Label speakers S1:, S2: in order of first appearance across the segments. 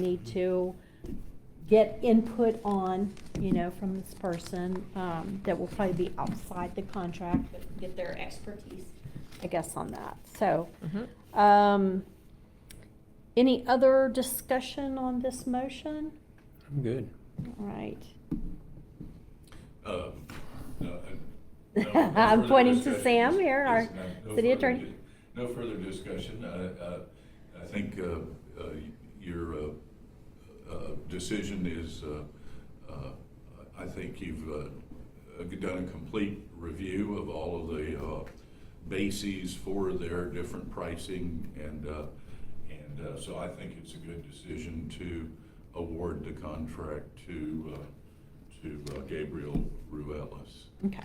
S1: need to get input on, you know, from this person, um, that will probably be outside the contract, but get their expertise, I guess, on that, so. Um, any other discussion on this motion?
S2: I'm good.
S1: All right.
S3: Um, no, I- no, no
S1: I'm
S3: further
S1: pointing to
S3: discussion.
S1: Sam here, our
S3: Yes, no- no
S1: city
S3: further
S1: attorney.
S3: di- No further discussion. I, I, I think, uh, uh, your, uh, uh, decision is, uh, uh, I think you've, uh, uh, done a complete review of all of the, uh, bases for their different pricing and, uh, and, uh, so I think it's a good decision to award the contract to, uh, to uh, Gabriel Ruelas.
S1: Okay.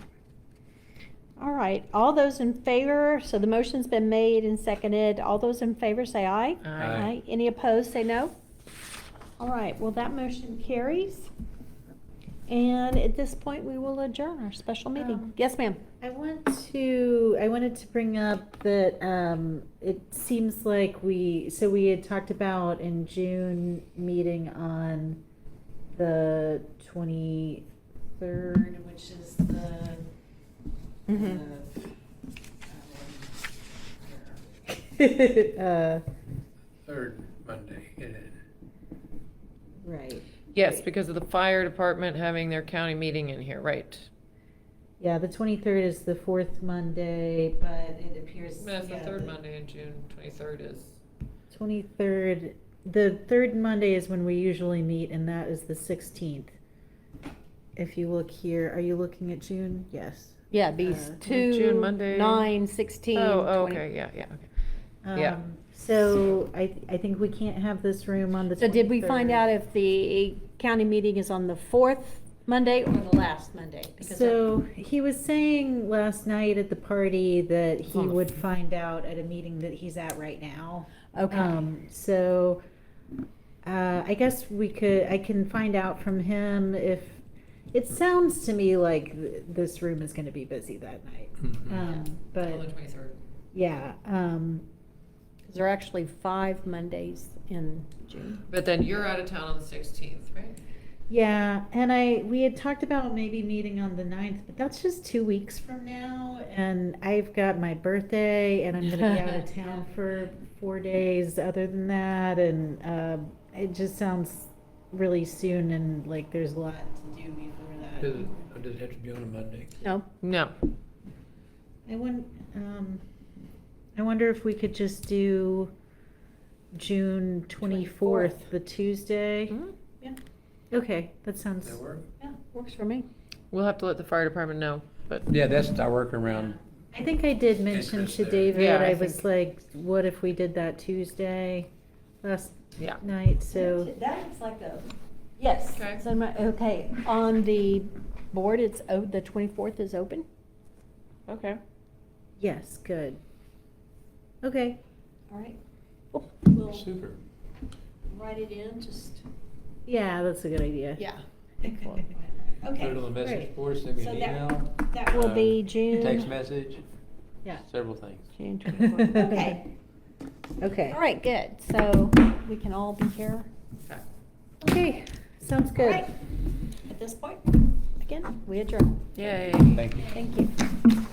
S1: All right, all those in favor, so the motion's been made and seconded. All those in favor say aye.
S2: Aye. Aye.
S1: Any opposed, say no. All right, well, that motion carries. And at this point, we will adjourn our special meeting.
S4: Um,
S1: Yes, ma'am.
S4: I want to, I wanted to bring up that um, it seems like we, so we had talked about in June meeting on the 23rd, which is the.
S5: Mm-hmm.
S1: Mhm.
S4: the, um, uh,
S2: Third Monday, it is.
S4: Right.
S5: Yes, because of the fire department having their county meeting in here, right?
S4: Yeah, the 23rd is the fourth Monday, but it appears.
S5: That's the
S4: yeah,
S5: third Monday in June, twenty-third is.
S4: 23rd, the third Monday is when we usually meet, and that is the 16th. If you look here, are you looking at June? Yes.
S1: Yeah, these
S4: Uh,
S1: two,
S5: June Monday.
S1: nine, sixteen,
S5: Oh,
S1: twenty.
S5: oh, okay, yeah, yeah, okay. Yeah.
S4: Um, So I, I think we can't have this room on the 23rd.
S1: So did we find out if the county meeting is on the fourth Monday or the last Monday? Because
S4: So he was saying last night at the party that
S5: It's
S4: he
S5: on the-
S4: would find out at a meeting that he's at right now.
S1: I- Okay,
S4: Um, so, uh, I guess we could, I can find out from him if, it sounds to me like th- this room is gonna be busy that night.
S2: Mhm.
S1: Mm-hmm.
S4: Um,
S5: On the
S4: but,
S5: twenty-third.
S4: yeah, um,
S1: 'Cause there are actually five Mondays in June.
S5: But then you're out of town on the sixteenth, right?
S4: yeah, and I, we had talked about maybe meeting on the ninth, but that's just two weeks from now. And I've got my birthday and I'm gonna be out of town for four days other than that, and, um, it just sounds really soon and like there's a lot to do before that.
S2: Does it, or does it have to be on a Monday?
S1: Uh, No,
S5: No.
S4: I won, um, I wonder if we could just do June twenty-fourth, the Tuesday?
S5: Hmm? Mm-hmm.
S1: yeah,
S4: Okay, that
S2: Does
S4: sounds,
S2: that work?
S1: yeah, works for me.
S5: We'll have to let the fire department know, but.
S2: Yeah, that's our workaround.
S4: I think I did mention
S2: Interest
S4: to
S2: there.
S4: David,
S5: Yeah, I
S4: I was
S5: think-
S4: like, what if we did that Tuesday last
S5: Yeah.
S4: night, so,
S1: That is like a, yes.
S5: Okay.
S1: So my, okay, on the board, it's, o- the twenty-fourth is open?
S5: Okay.
S4: yes, good. Okay,
S1: All right. Well, We'll
S2: Super.
S1: write it in, just,
S4: yeah, that's a good idea.
S1: yeah.
S2: Put it on the
S1: Okay,
S2: message
S4: great.
S2: board, send me
S1: So
S2: an
S1: that-
S2: email.
S1: that will
S2: uh,
S1: be June.
S2: Text message,
S4: Yeah.
S2: several things.
S1: June 24th. Okay,
S4: Okay,
S1: all right, good, so we can all be here.
S4: okay, sounds
S1: All
S4: good.
S1: right. At this point, again, we adjourn.
S5: Yay.
S2: Thank you.
S1: Thank you.